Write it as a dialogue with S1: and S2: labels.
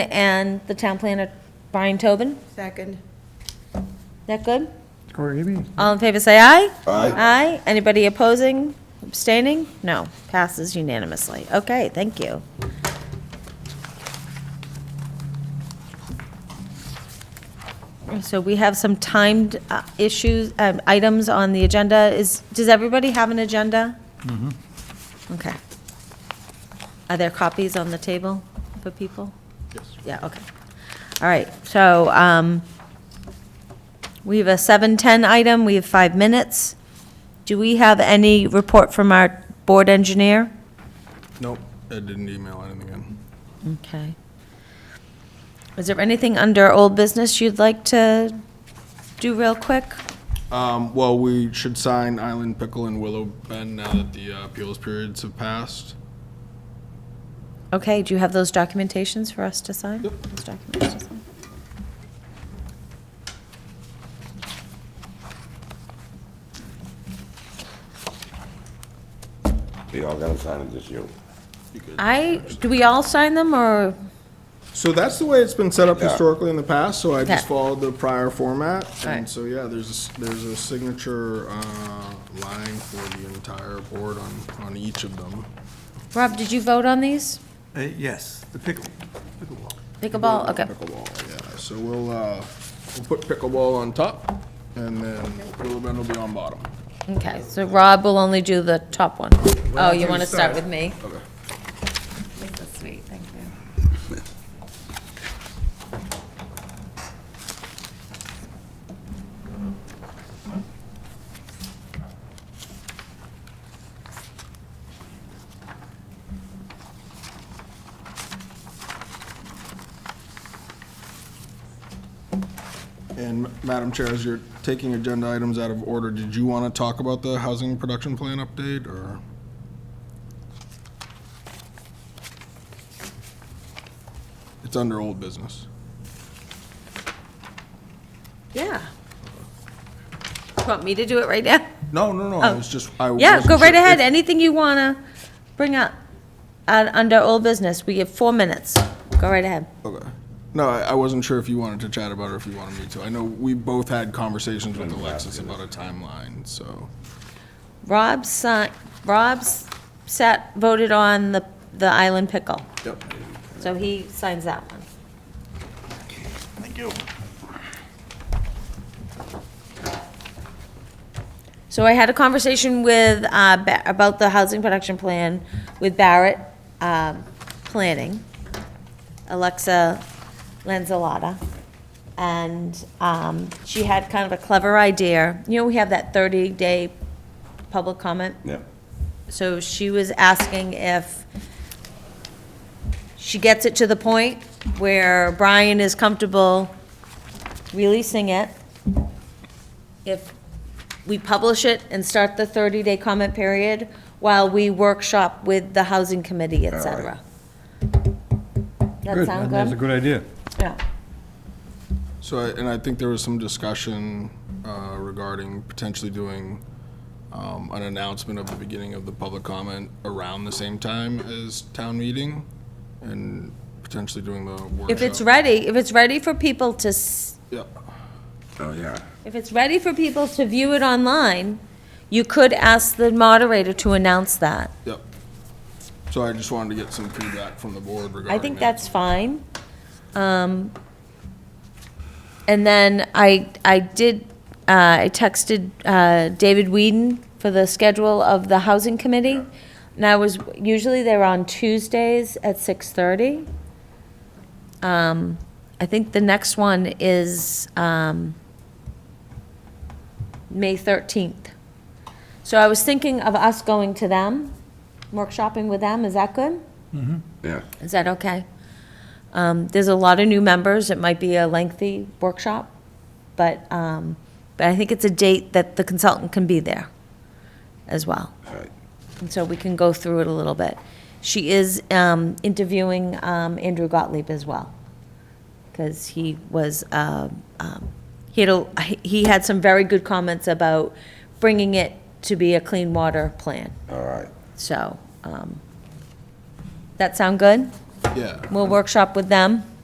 S1: and the town planner, Brian Tobin.
S2: Second.
S1: That good?
S3: Corey Eby.
S1: All in favor, say aye.
S4: Aye.
S1: Aye. Anybody opposing, abstaining? No. Passes unanimously. Okay, thank you. So we have some timed uh, issues, um, items on the agenda. Is, does everybody have an agenda? Okay. Are there copies on the table for people? Yes. Yeah, okay. All right, so, um, we have a 7:10 item, we have five minutes. Do we have any report from our board engineer?
S5: Nope, I didn't email anything in.
S1: Okay. Is there anything under old business you'd like to do real quick?
S5: Um, well, we should sign Island Pickle and Willow Bend now that the uh, appeals periods have passed.
S1: Okay, do you have those documentations for us to sign? Those documents to sign?
S4: We all gotta sign it, just you.
S1: I, do we all sign them, or,
S5: So that's the way it's been set up
S4: Yeah.
S5: historically in the past, so I just
S1: Yeah.
S5: followed the prior format.
S1: Alright.
S5: And so, yeah, there's, a s- there's a signature, uh, line for the entire board on, on each of them.
S1: Rob, did you vote on these?
S3: Uh, yes, the pickle, pickleball.
S1: Pickleball, okay.
S5: Pickleball, yeah, so we'll, uh, we'll put pickleball on top, and then Willow Bend will be on bottom.
S1: Okay, so Rob will only do the top one. Oh, you want to start with me?
S5: Okay.
S1: This is sweet, thank you.
S5: And Madam Chair, as you're taking agenda items out of order, did you want to talk about the housing production plan update, or? It's under old business.
S1: Yeah. You Want me to do it right now?
S5: No, no, no, I was just, I
S1: Oh. Yeah,
S5: wasn't
S1: go right
S5: sure
S1: ahead,
S5: if-
S1: anything you wanna bring up, uh, under old business, we have four minutes, go right ahead.
S5: Okay. No, I I wasn't sure if you wanted to chat about it or if you wanted me to. I know we both had conversations with Alexis about a timeline, so.
S1: Rob si, Rob's sat, voted on the, the island pickle,
S5: Yep.
S1: so he signs that one.
S3: Thank you.
S1: So I had a conversation with, uh, Ba- about the housing production plan with Barrett, um, Planning, Alexa Lanzolata. And, um, she had kind of a clever idea. You know, we have that thirty-day public comment.
S4: Yeah.
S1: So she was asking if she gets it to the point where Brian is comfortable releasing it, if we publish it and start the 30-day comment period while we workshop with the housing committee, et cetera. That sound
S3: That's a
S1: good?
S3: good idea.
S1: Yeah.
S5: So, I- and I think there was some discussion uh, regarding potentially doing um, an announcement of the beginning of the public comment around the same time as town meeting, and potentially doing the workshop.
S1: If it's ready, if it's ready for people to, s-
S5: Yeah.
S4: Oh, yeah.
S1: if it's ready for people to view it online, you could ask the moderator to announce that.
S5: Yep. So I just wanted to get some feedback from the board regarding
S1: I think
S5: that.
S1: that's fine. Um, And then I, I did, uh, I texted uh, David Whedon for the schedule of the Housing Committee. And I was, usually they're on Tuesdays at 6:30. Um, I think the next one is um, May 13th. So I was thinking of us going to them, workshopping with them, is that good?
S4: Yeah.
S1: Is that okay? Um, There's a lot of new members, it might be a lengthy workshop, but, um, but I think it's a date that the consultant can be there as well.
S4: All right.
S1: And so we can go through it a little bit. She is um, interviewing um, Andrew Gottlieb as well, because he was, um, um, he had, a- he had some very good comments about bringing it to be a clean water plan,
S4: All right.
S1: so. um, That sound good?
S5: Yeah.
S1: We'll workshop with them.